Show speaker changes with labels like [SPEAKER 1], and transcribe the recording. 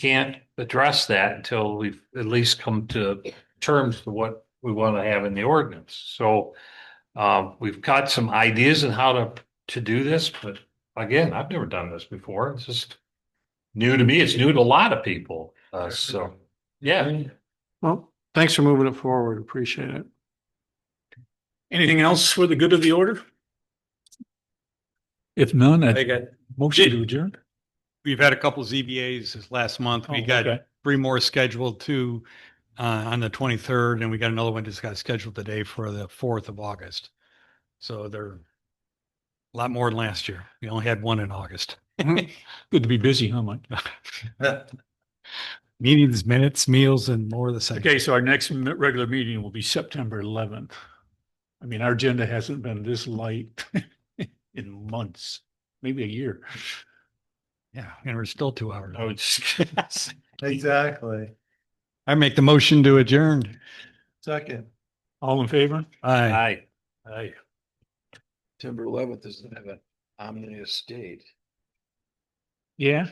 [SPEAKER 1] can't address that until we've at least come to terms to what we want to have in the ordinance. So um, we've got some ideas on how to, to do this, but again, I've never done this before. It's just new to me. It's new to a lot of people. Uh, so, yeah.
[SPEAKER 2] Well, thanks for moving it forward. Appreciate it.
[SPEAKER 3] Anything else for the good of the order?
[SPEAKER 4] If none,
[SPEAKER 3] I
[SPEAKER 4] I
[SPEAKER 3] got,
[SPEAKER 4] motion to adjourn.
[SPEAKER 5] We've had a couple ZBAs this last month. We
[SPEAKER 4] Oh,
[SPEAKER 5] got
[SPEAKER 4] okay.
[SPEAKER 5] three more scheduled, two uh, on the 23rd, and we got another one just got scheduled today for the 4th of August. So they're a lot more than last year. We only had one in August.
[SPEAKER 4] Good to be busy, huh, Mike?
[SPEAKER 5] Meetings, minutes, meals, and more of the same.
[SPEAKER 4] Okay, so our next m- regular meeting will be September eleventh. I mean, our agenda hasn't been this light in months, maybe a year.
[SPEAKER 5] Yeah, and we're still two hours.
[SPEAKER 4] I would just.
[SPEAKER 3] exactly.
[SPEAKER 5] I make the motion to adjourn.
[SPEAKER 3] Second,
[SPEAKER 4] All in favor?
[SPEAKER 5] Aye.
[SPEAKER 1] Aye.
[SPEAKER 4] Aye.
[SPEAKER 3] September eleventh doesn't have an ominous date.
[SPEAKER 4] Yeah.